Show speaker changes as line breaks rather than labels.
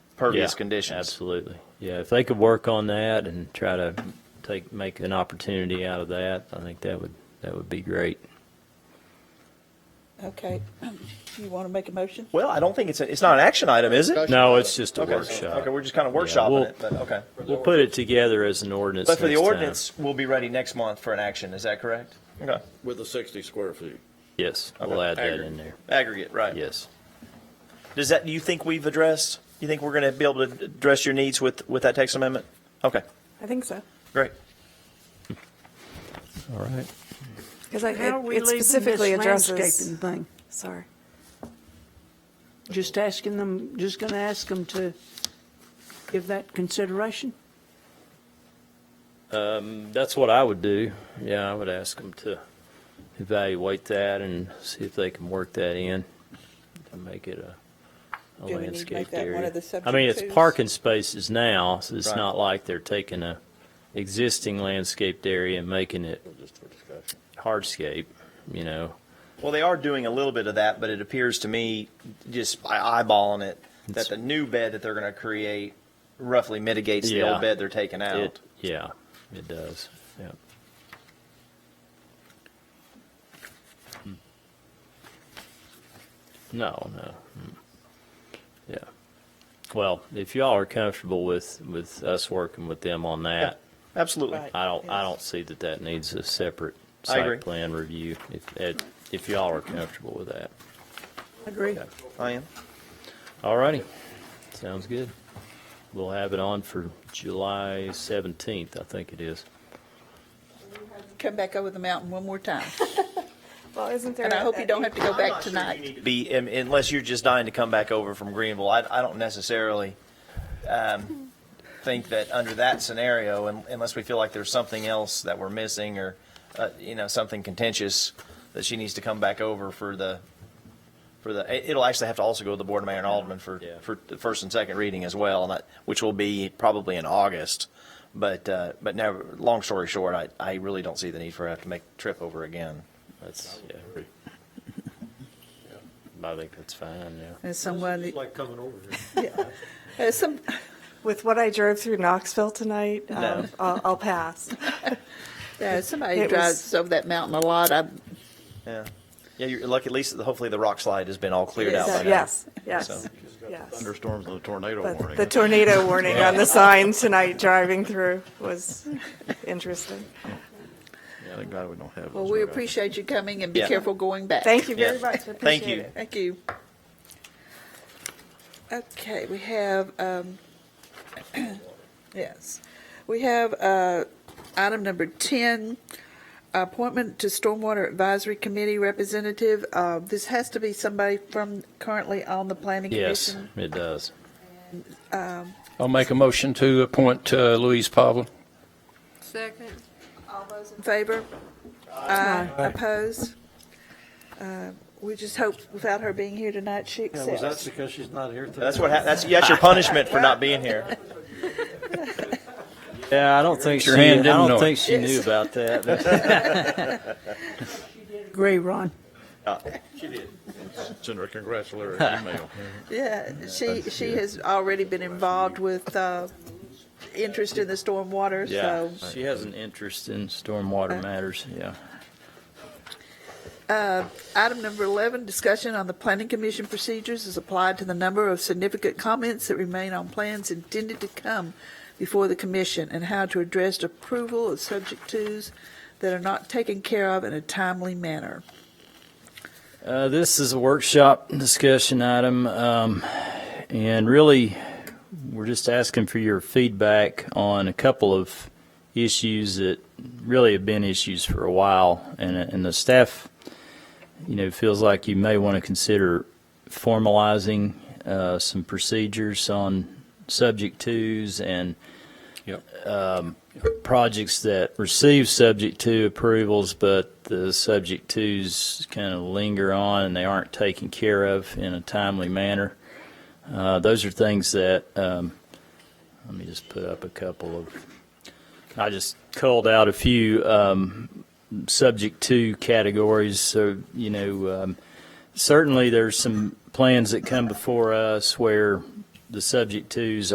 pervious
Yeah,
conditions.
Absolutely. Yeah, if they could work on that and try to take, make an opportunity out of that, I think that would, that would be great.
Okay, you want to make a motion?
Well, I don't think it's, a- it's not an action item, is it?
No, it's just a
Okay,
workshop.
Okay, we're just kind of
we'll-
workshopping it, but okay.
We'll put it together as an ordinance
But for the
next time.
ordinance, we'll be ready next month for an action, is that correct? Okay.
With the 60 square feet.
Yes, we'll
Okay.
add that
Aggregate.
in there.
Aggregate, right.
Yes.
Does that, do you think we've addressed, you think we're going to be able to address your needs with, with that text amendment? Okay,
I think so.
great.
All right.
Because it
How are we
it
leaving this
specifically
landscaping
addresses,
thing?
sorry.
Just asking them, just going to ask them to give that consideration?
That's what I would do. Yeah, I would ask them to evaluate that and see if they can work that in to make it a, a
Do we need to make
landscaped
that one
area.
of the
I mean, it's
subject twos?
parking spaces now, so it's
Right.
not like they're taking a existing landscaped area and making it
Just for discussion.
hardscape, you know.
Well, they are doing a little bit of that, but it appears to me, just by eyeballing it, that
It's-
the new bed that they're going to create roughly mitigates the
Yeah.
old bed they're taking out.
It, yeah, it does. Yeah. Hmm. No, no. mm. Yeah. Well, if y'all are comfortable with, with us working with them on that,
Absolutely.
Right.
I don't, I don't see that that needs a separate
I agree.
site plan review. If, it- if y'all are comfortable with that.
Agree.
I am.
All righty. Sounds good. We'll have it on for July seventeenth, I think it is.
Come back over the mountain one more time,
Well, isn't there?
and I
a-
hope you don't have to go back tonight.
Be, um, unless you're just dying to come back over from Greenville, I, I don't necessarily um, think that under that scenario, un- unless we feel like there's something else that we're missing or, uh, you know, something contentious, that she needs to come back over for the, for the, it- it'll actually have to also go to the Board of Mayor and Alderman for,
Yeah.
for the first and second reading as well, and that, which will be probably in August. But, uh, but now, long story short, I, I really don't see the need for her to have to make the trip over again.
That's, yeah. I think that's fine, yeah.
As someone, that-
like coming over here.
as Uh, some,
With what I drove through Knoxville tonight, um, I'll, I'll pass.
as somebody who
It was-
drives over that mountain a lot, I,
Yeah. Yeah, you're lucky. At least, hopefully, the rock slide has been all cleared
Oh,
out by now.
Yes, yes,
So-
yes.
Thunderstorms and a tornado
But
warning.
the tornado warning on the sign tonight driving through was interesting.
Thank God we don't have.
well,
those
we
around.
appreciate you coming and be
Yeah.
careful going back.
Thank you very
Yeah.
much. I
Thank
appreciate
you.
it.
Thank you. Okay, we have, um, yes, we have uh, item number 10, appointment to Stormwater Advisory Committee representative. Uh, This has to be somebody from currently on the planning
Yes,
commission.
it does.
I'll make a motion to appoint uh, Louise Pavlin.
Second.
All those in favor? Aye. Opposed? Uh, We just hope without her being here tonight, she
Yeah, was that
accepts.
because she's not here today?
That's what. hap that's that's your punishment for not being here.
Yeah, I don't think she,
Your
I
hand didn't know
don't
it.
think she knew about that. but-
Agree, Ron.
Send her a congratulatory email.
Yeah, she, she has already been involved with, uh, interest in the stormwater,
Yeah,
so.
she has an interest in stormwater matters, yeah.
Item number 11, discussion on the planning commission procedures is applied to the number of significant comments that remain on plans intended to come before the commission and how to address approval of subject twos that are not taken care of in a timely manner.
Uh, this is a workshop discussion item, um, and really, we're just asking for your feedback on a couple of issues that really have been issues for a while, and, and the staff, you know, feels like you may want to consider formalizing uh, some procedures on subject twos and
Yep.
projects that receive subject to approvals, but the subject twos kind of linger on and they aren't taken care of in a timely manner. Uh, those are things that, um, let me just put up a couple of, I just culled out a few, um, subject to categories. So, you know, um, certainly there's some plans that come before us where the subject twos